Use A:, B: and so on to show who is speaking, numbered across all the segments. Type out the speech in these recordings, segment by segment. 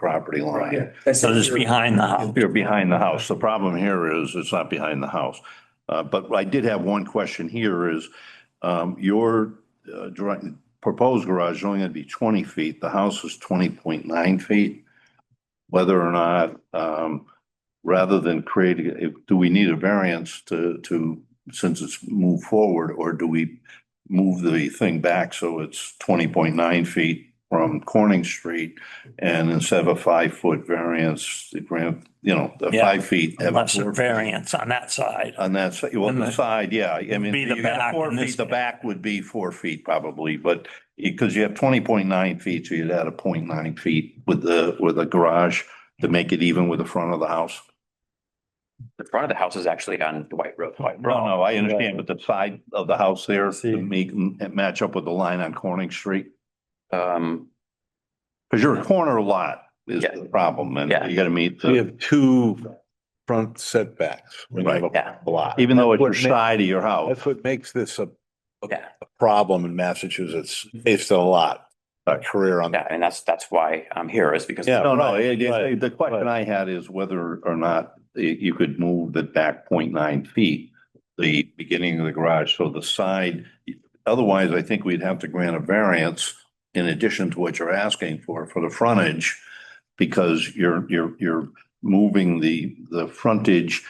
A: property line.
B: That's
C: So it's behind the house.
A: You're behind the house. The problem here is it's not behind the house. Uh, But I did have one question here is um, your uh, dri- proposed garage is only going to be 20 feet. The house is 20.9 feet. Whether or not, um, rather than creating, if- do we need a variance to, to, since it's moved forward? Or do we move the thing back so it's 20.9 feet from Corning Street? And instead of a five-foot variance, the grant, you know, the
C: Yeah.
A: five feet. have a
C: Unless a
A: four-
C: variance on that side.
A: on that side, well,
C: And
A: the
C: the-
A: side, yeah, I mean.
C: Be the
A: you got
C: back
A: Four
C: in this
A: feet, the
C: case.
A: back would be four feet probably, but because you have twenty point nine feet, so you'd add a point nine feet with the, with the garage to make it even with the front of the house.
D: The front of the house is actually on Dwight Road.
A: No, no, I understand, but the side of the house there to make, match up with the line on Corning Street.
D: Um,
A: Cause you're a corner lot is
D: Yeah.
A: the problem and
D: Yeah.
A: you gotta meet
E: We
A: the,
E: have two front setbacks. when you have a
D: yeah,
E: Lot.
A: even though it's your
E: That's what ma-
A: side of your house.
E: That's what makes this a
D: yeah,
E: problem in Massachusetts, based on a lot, a career on
D: yeah.
E: that.
D: And that's, that's why I'm here is because.
E: Yeah.
A: No, no,
E: Right,
A: it- it-
E: right,
A: the question I had is whether or not y- you could move the back 0.9 feet, the beginning of the garage, so the side, otherwise I think we'd have to grant a variance in addition to what you're asking for, for the frontage, because you're, you're, you're moving the, the frontage.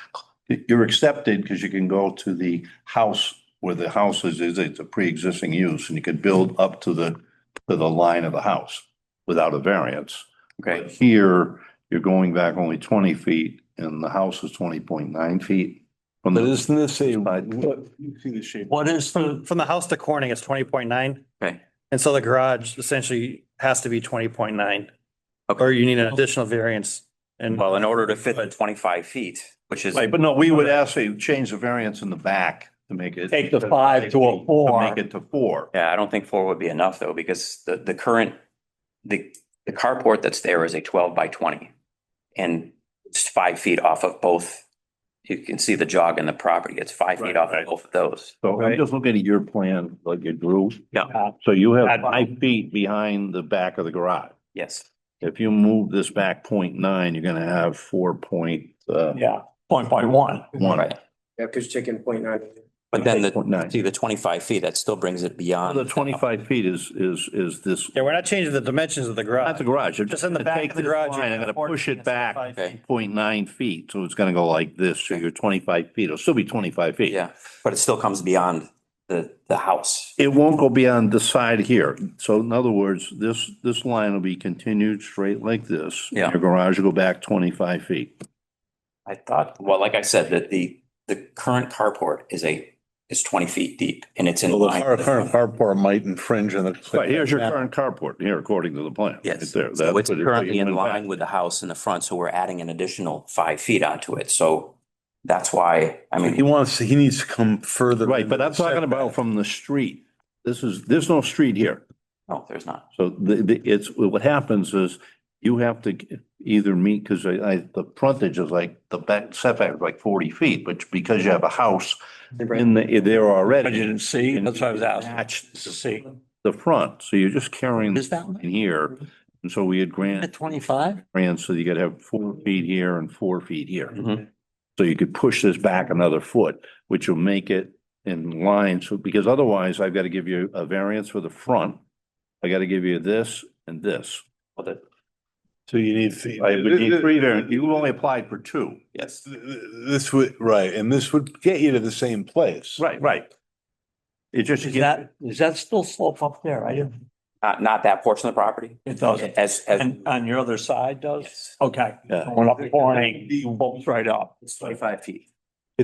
A: You're accepted because you can go to the house where the house is, is it's a pre-existing use and you could build up to the, to the line of the house without a variance. But
D: Okay,
A: Here, you're going back only twenty feet and the house is twenty point nine feet. From
E: But
A: the,
E: isn't this a,
A: Side.
E: look, you see the shape.
C: What is
F: From,
C: the,
F: from the house to Corning, it's twenty point nine.
D: Okay.
F: And so the garage essentially has to be twenty point nine.
D: Okay.
F: Or you need an additional variance and
D: well, in order to fit the twenty-five feet, which is,
A: Right, but no, we would ask you to change the variance in the back to make it.
C: Take the five to a four.
A: Make it to four.
D: yeah, I don't think four would be enough though, because the, the current, the, the carport that's there is a twelve by twenty. And it's five feet off of both. You can see the jog in the property. It's five
A: Right,
D: feet off
A: right.
D: of both of those.
A: So I'm just looking at your plan, like you drew.
D: Yeah.
A: So you have five feet behind the back of the garage.
D: Yes.
A: If you move this back 0.9, nine, you're gonna have four point, uh,
C: yeah, point by one.
A: one.
D: Right.
B: Yeah, because chicken point nine.
D: But then
A: Point nine.
D: the, see the twenty-five feet, that still brings it beyond.
A: The twenty-five feet is, is, is this,
F: yeah, we're not changing the dimensions of the
A: not
F: garage.
A: the garage.
F: Just in the back of the garage. you're
A: I'm gonna
F: afford
A: push
F: to
A: it back
F: five
D: Okay.
F: feet.
A: point nine feet, so it's gonna go like this, so you're twenty-five feet, it'll still be twenty-five feet.
D: Yeah, but it still comes beyond the, the house.
A: It won't go beyond the side here, so in other words, this, this line will be continued straight like this.
D: Yeah.
A: Your garage will go back twenty-five feet.
D: I thought, well, like I said, that the, the current carport is a, is twenty feet deep and it's in
E: Well, the
D: line.
E: car-
D: with the
E: current
D: front.
E: carport might infringe on the.
A: Right, here's your current carport, here, according to the plan.
D: Yes,
A: Right there.
D: so
A: That's
D: it's
A: what it-
D: currently in
A: went back.
D: line with the house in the front, so we're adding an additional five feet onto it, so that's why, I
E: He
D: mean,
E: wants, he needs to come further.
A: Right, but I'm talking about from the street. This is, there's no street here.
D: no, there's not.
A: So the, the, it's, what happens is you have to either meet, because I, I, the frontage is like, the back setback is like forty feet, but because you have a house in the, there
C: But you didn't
A: already,
C: see, that's what I was asking.
A: match
C: To see.
A: the front, so you're just carrying
C: Is
A: this
C: that
A: in here. And so we had
C: at
A: grant,
C: twenty-five?
A: grants, so you could have four feet here and four feet here.
D: Mhm.
A: So you could push this back another foot, which will make it in line, so, because otherwise I've got to give you a variance for the front. I got to give you this and this.
D: Well, the-
E: So you need.
A: I would need three variants. You only applied for two.
D: Yes,
E: This would, right, and this would get you to the same place.
A: Right, right. It just,
C: Is that, is that still slope up there? I didn't,
D: not, not that portion of the property,
C: it doesn't.
D: as, as,
C: And on your other side does?
D: yes,
C: Okay.
A: Yeah.
C: Going up Corning, bumps right up.
D: it's twenty-five feet.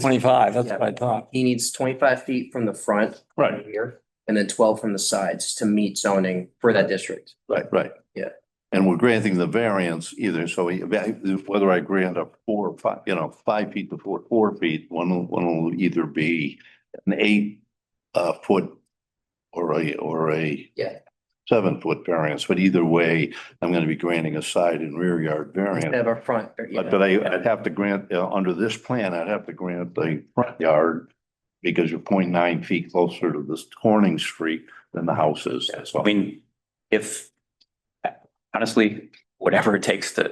C: Twenty-five, that's what I thought.
B: He needs twenty-five feet from the front.
A: Right.
B: Here, and then twelve from the sides to meet zoning for that district.
A: right, right.
B: Yeah.
A: And we're granting the variance either, so we- whether I grant a four, or five, you know, five feet to four, four feet, one will, one will either be an eight uh, foot or a, or a
B: Yeah.
A: seven foot variance, but either way, I'm going to be granting a side and rear yard variance.
B: Have a front. or, you
A: But
B: know,
A: but I, I'd have to grant, uh, under this plan, I'd have to grant the front yard because you're 0.9 feet closer to this Corning Street than the house is.
D: I mean, if, honestly, whatever it takes to,